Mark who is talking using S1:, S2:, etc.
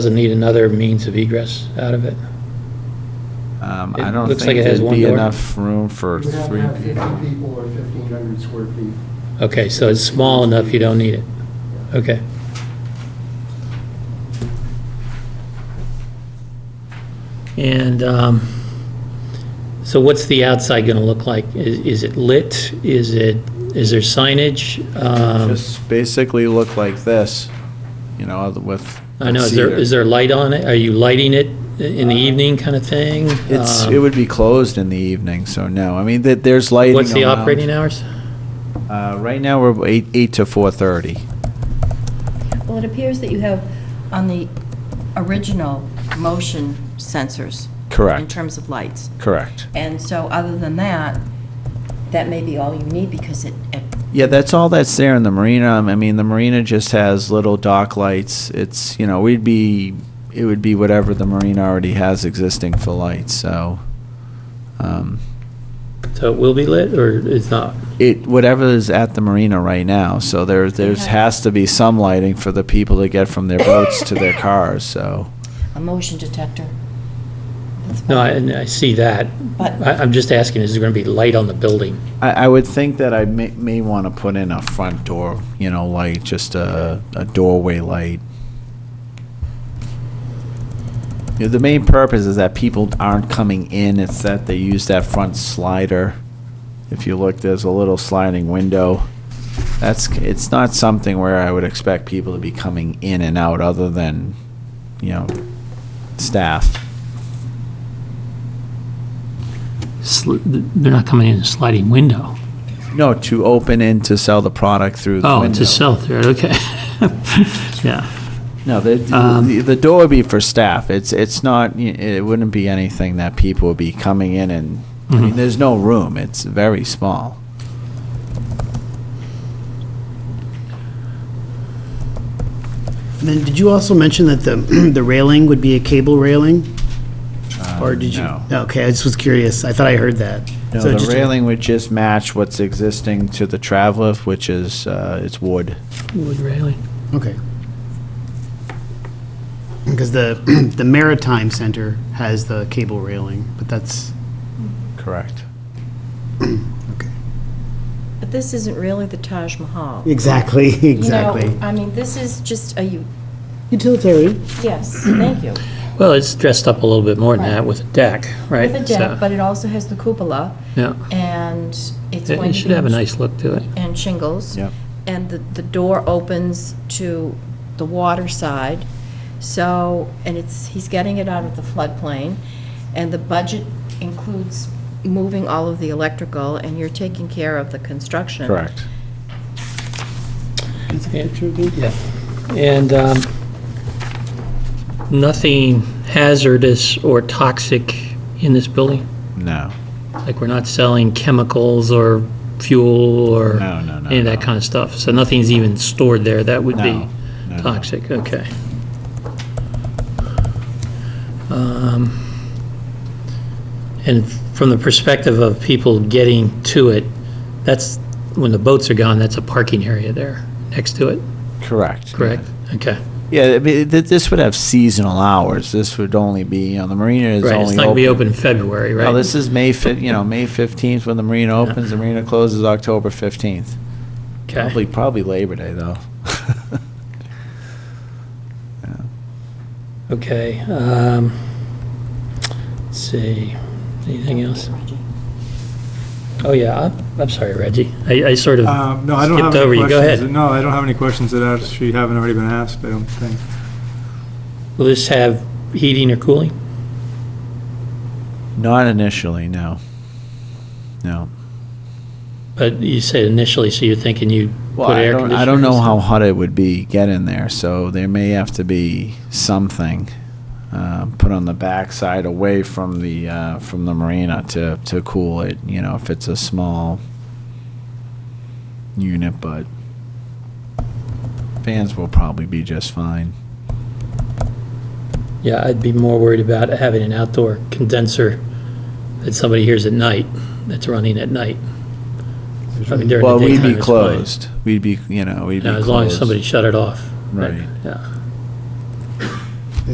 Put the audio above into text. S1: Doesn't need another means of egress out of it?
S2: Um,
S1: It
S2: I don't
S1: looks like
S2: think
S1: it has
S2: there'd
S1: one
S2: be
S1: door.
S2: enough room for
S3: You have to
S2: three
S3: have 50
S2: people.
S3: people or 1,500 square feet.
S1: Okay, so it's small enough you don't need it? Okay. And um, so what's the outside going to look like? I- Is it lit? Is it, is there signage? Um,
S2: Just basically look like this, you know, with.
S1: I know, is there,
S2: cedar.
S1: is there light on it? Are you lighting it in the evening kind of thing?
S2: Uh, It's,
S1: Um,
S2: it would be closed in the evening, so no. I mean, that, there's lighting
S1: What's the
S2: around.
S1: operating hours?
S2: Uh, right now, we're eight, eight to four thirty.
S4: Well, it appears that you have on the original motion sensors. In
S2: Correct.
S4: terms of lights.
S2: Correct.
S4: And so, other than that, that may be all you need because it, it-
S2: Yeah, that's all that's there in the marina. Um, I mean, the marina just has little dock lights. It's, you know, we'd be, it would be whatever the marina already has existing for lights, so. Um,
S1: So it will be lit or it's not?
S2: it whatever is at the marina right now. So there there's
S4: Okay.
S2: has to be some lighting for the people to get from their boats to their cars. So
S4: a motion detector. That's
S1: No, I,
S4: fine.
S1: and I see that.
S4: But-
S1: I, I'm just asking, is there going to be light on the building?
S2: I, I would think that I may, may want to put in a front door, you know, light, just a, a doorway light. You know, the main purpose is that people aren't coming in. It's that they use that front slider. If you look, there's a little sliding window. That's it's not something where I would expect people to be coming in and out, other than, you know, staff.
S1: Sl- They're not coming in a sliding window.
S2: No, to open in to sell the product through. The
S1: Oh,
S2: window.
S1: to sell through, it, okay. Yeah,
S2: No, the, the,
S1: Um,
S2: the- the door would be for staff. It's it's not. y- It wouldn't be anything that people would be coming in and. I mean,
S1: Mhm.
S2: there's no room. It's very small.
S5: And then, did you also mention that the, the railing would be a cable railing? Or did you?
S2: Uh, Um, no.
S5: Okay, I just was curious. I thought I heard that.
S2: No,
S5: So
S2: the
S5: just a-
S2: railing would just match what's existing to the traveler, which is uh, it's wood.
S1: wood railing.
S5: Okay. Because the, the Maritime Center has the cable railing, but that's,
S2: Correct.
S5: okay.
S4: But this isn't really the Taj Mahal.
S5: Exactly,
S4: You know,
S5: exactly.
S4: I mean, this is just a, u-
S5: Utilitarian.
S4: yes, thank you.
S1: Well, it's dressed up a little bit more than
S4: Right.
S1: that with a deck, right?
S4: With a
S1: So,
S4: deck, but it also has the cupola
S1: Yeah,
S4: and it's
S1: it
S4: going to
S1: it
S4: be.
S1: should have a nice look to it.
S4: And shingles.
S2: Yep.
S4: and the, the door opens to the water side, so, and it's, he's getting it out of the floodplain, and the budget includes moving all of the electrical, and you're taking care of the construction.
S2: Correct.
S1: Yeah, and um, nothing hazardous or toxic in this building?
S2: No.
S1: Like, we're not selling chemicals or fuel or
S2: No, no, no,
S1: any of that
S2: no.
S1: kind of stuff? So nothing's even stored there that would be
S2: No, no, no.
S1: toxic? Okay. Um, And from the perspective of people getting to it, that's, when the boats are gone, that's a parking area there next to it,
S2: Correct.
S1: correct? Okay.
S2: Yeah, I mean, th- this would have seasonal hours. This would only be, you know, the marina is
S1: Right,
S2: only
S1: it's not going to be open in February, right?
S2: No, this is May, fif- you know, May 15th when the marina opens, the marina closes October 15th.
S1: Okay.
S2: Probably, probably Labor Day, though.
S1: Okay, um, let's see, anything else? Oh, yeah, I'm, I'm sorry, Reggie, I, I sort of
S2: Uh,
S6: Um, No, I don't have
S1: skipped
S6: any
S1: over you,
S6: questions.
S1: go ahead.
S6: No, I don't have any questions that actually haven't already been asked, I don't think.
S1: Will this have heating or cooling?
S2: Not initially, no. No.
S1: But you said initially, so you're thinking you
S2: Well,
S1: put
S2: I
S1: air
S2: don't,
S1: conditioning?
S2: I don't know
S1: and
S2: how
S1: stuff?
S2: hot it would be get in there, so there may have to be something uh, put on the backside away from the, uh, from the marina to, to cool it, you know, if it's a small unit, but fans will probably be just fine.
S1: Yeah, I'd be more worried about having an outdoor condenser that somebody hears at night, that's running at night. I mean, during the
S2: Well, we'd
S1: daytime,
S2: be
S1: it's fine.
S2: closed. We'd be, you know, we'd be
S1: Yeah, as long as
S2: closed.
S1: somebody shut it off.
S2: Right.
S1: Yeah.